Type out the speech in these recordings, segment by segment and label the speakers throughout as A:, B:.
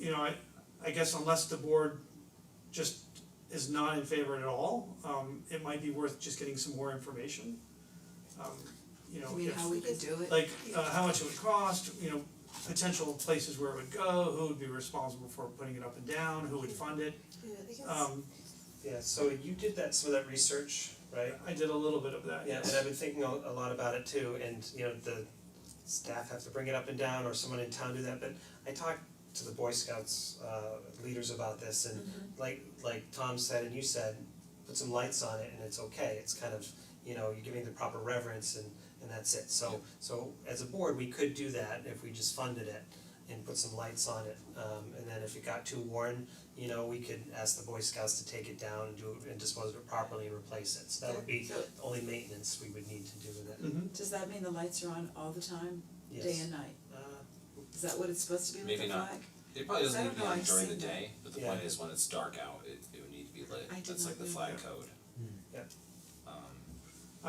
A: you know, I I guess unless the board just is not in favor at all, um it might be worth just getting some more information. Um you know,
B: I mean,
A: if-
B: how we could do it.
A: like uh how much it would cost, you know, potential places where it would go, who would be responsible for putting it up and down, who would fund it.
B: Yeah, I guess.
A: Um
C: Yeah, so you did that, some of that research, right?
A: I did a little bit of that,
C: Yeah,
A: yes.
C: and I've been thinking a a lot about it too, and you know, the staff have to bring it up and down or someone in town do that, but I talked to the Boy Scouts uh leaders about this and like like Tom said and you said, put some lights on it and it's okay, it's kind of, you know, you're giving the proper reverence and and that's it, so so as a board, we could do that if we just funded it and put some lights on it, um and then if it got too worn, you know, we could ask the Boy Scouts to take it down and do and dispose of it properly and replace it, so that would be
B: So
C: the only maintenance we would need to do with it,
A: Mhm.
B: does that mean the lights are on all the time,
C: yes.
B: day and night?
C: Uh
B: Is that what it's supposed to be with
D: Maybe
B: the
D: not.
B: flag?
D: It probably doesn't
B: I
D: need
B: don't
D: to be
B: know,
D: on
B: I've
D: during the
B: seen that.
D: day, but the
C: Yeah.
D: point is when it's dark out, it it would need to be lit,
B: I did
D: that's
B: not
D: like the
B: know
D: flag
B: that.
D: code.
C: Yeah.
D: Um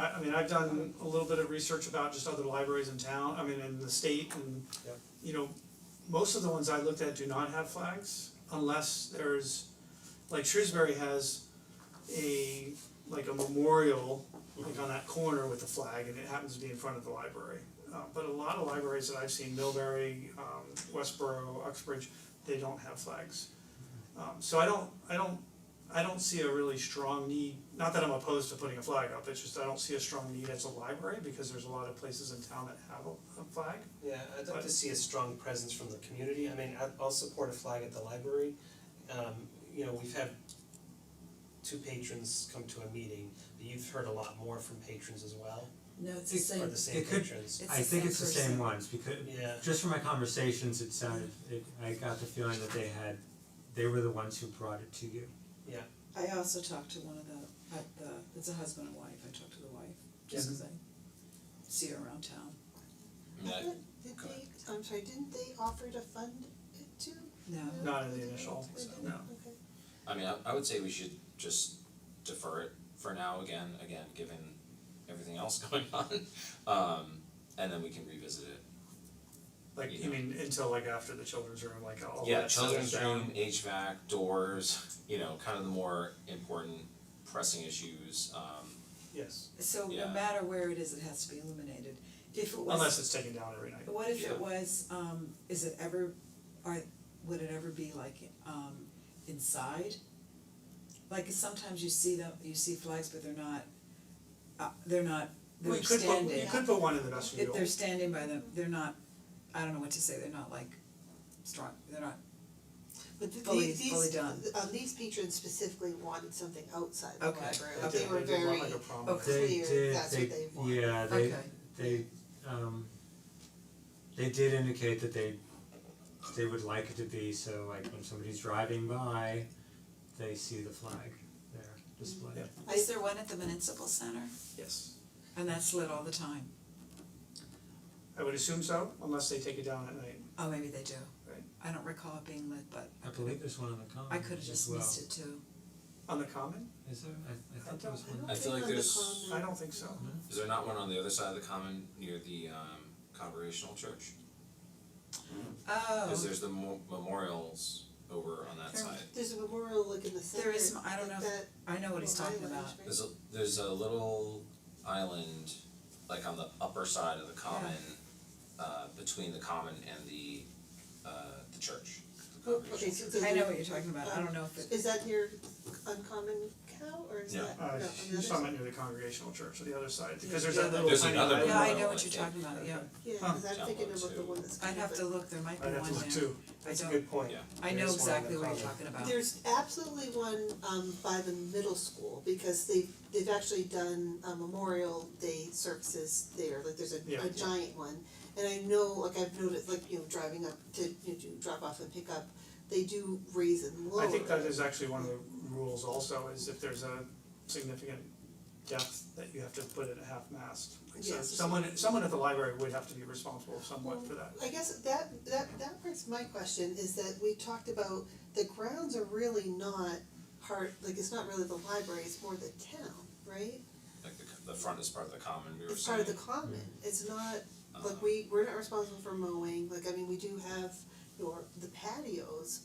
A: I I mean, I've done a little bit of research about just other libraries in town, I mean, in the state and
C: Yep.
A: you know, most of the ones I looked at do not have flags unless there's, like Shrewsbury has a, like a memorial, like on that corner with the flag and it happens to be in front of the library. Uh but a lot of libraries that I've seen, Millbury, um Westboro, Uxbridge, they don't have flags. Um so I don't, I don't, I don't see a really strong need, not that I'm opposed to putting a flag up, it's just I don't see a strong need as a library because there's a lot of places in town that have a a flag.
C: yeah, I'd like to see a strong presence from the community, I mean, I- I'll support a flag at the library. Um you know, we've had two patrons come to a meeting, but you've heard a lot more from patrons as well,
B: No, it's the
E: It-
C: or
B: same,
C: the same
E: It could-
C: patrons.
B: It's
E: I
B: the
E: think
B: same
E: it's the same
B: person.
E: ones because
C: Yeah,
E: just from my conversations, it sounded, it, I got the feeling that they had, they were the ones who brought it to you.
B: I also talked to one of the, at the, it's a husband and wife, I talked to the wife, just cause I see her around town.
D: that
F: Did
D: Go ahead.
F: they, I'm sorry, didn't they offer to fund it too?
B: No,
A: Not in the initial,
F: They didn't?
A: no.
F: Okay.
D: I mean, I I would say we should just defer it for now again, again, given everything else going on. Um and then we can revisit it.
A: Like, you
D: Yeah.
A: mean until like after the children's room, like all
D: Yeah,
A: that stuff is
D: children's
A: down?
D: room, HVAC, doors, you know, kind of the more important pressing issues, um
C: yes.
B: so no
D: Yeah.
B: matter where it is, it has to be illuminated. If it was.
A: Unless it's taken down every night.
B: What if
D: Yeah.
B: it was, um, is it ever, or would it ever be like, um, inside? Like sometimes you see them, you see flags, but they're not, uh, they're not,
A: We
B: they're
A: could put,
B: standing.
A: you could put one in the vestibule.
B: If they're standing by them, they're not, I don't know what to say, they're not like strong, they're not,
F: But th-
B: Fully-
F: these these
B: fully done.
F: th- um these patrons specifically wanted something outside the
B: Okay,
F: library,
B: okay.
F: they were
A: They did
F: very,
A: one like a promenade.
B: Okay.
E: They
F: Clear,
E: did,
F: that's
E: they-
F: what they want.
E: Yeah, they,
B: okay,
E: they, um, they did indicate that they, they would like it to be, so like when somebody's driving by, they see the flag there displayed.
A: Yeah.
B: is there one at the municipal center?
A: Yes,
B: And that's lit all the time,
A: I would assume so, unless they take it down at night.
B: oh, maybe they do.
A: Right.
B: I don't recall it being lit, but
E: I believe there's one on the common
B: I could have
E: as
B: just
E: well.
B: missed it too.
A: On the common?
E: Is there? I I
A: I
E: thought there was
A: don't- I
E: one.
D: I feel like there's-
A: I don't think so.
D: Is there not one on the other side of the common near the um Congregational Church?
B: Oh,
D: Cause there's the mo- memorials over on that
B: There-
D: side.
F: There's a memorial like in the center.
B: There is m- I don't
F: like
B: know if-
F: that
B: I know what he's
F: little
B: talking about.
F: island, right?
D: There's a there's a little island like on the upper side of the common, uh between the common and the uh the church, the
F: Well,
D: congregation
F: Oh, Okay,
D: church.
F: so so
B: I know
F: there-
B: what you're talking about, I don't know if it,
F: is that near Uncommon Cow or is
D: No.
F: that, no,
A: Uh,
F: on the
A: you're
F: other
A: talking
F: side?
A: about near the congregational church or the other side,
B: Yeah,
A: because there's
B: yeah,
A: that
B: that-
A: little
D: There's
A: tiny
D: another
A: island.
B: yeah, I
D: Well,
B: know what
D: I
B: you're
D: think-
B: talking about, yeah,
F: Yeah,
A: Huh.
F: cause I'm
D: Down
F: thinking
D: one,
F: about the
D: too.
F: one that's
B: I'd
F: kind of
B: have to look, there might be
A: I'd have
B: one
A: to look
B: there,
A: too.
B: I
C: That's a
B: don't,
C: good point.
D: Yeah.
B: I know
C: There is one on the
B: exactly what you're
C: common.
B: talking about.
F: There's absolutely one um by the middle school because they've they've actually done uh Memorial Day services there, like there's a
A: Yeah.
F: a giant one. And I know, like I've noticed, like, you know, driving up to, you know, do drop off and pick up, they do raise and lower.
A: I think that is actually one of the rules also, is if there's a significant depth that you have to put it at half mast. So
F: Yes.
A: someone, someone at the library would have to be responsible somewhat for that.
F: I guess that that that part's my question is that we talked about the grounds are really not part, like it's not really the library, it's more the town, right?
D: Like the the front is part of the common, we were
F: It's part of the
D: saying,
F: common, it's not
D: um,
F: like we we're not responsible for mowing, like I mean, we do have your the patios,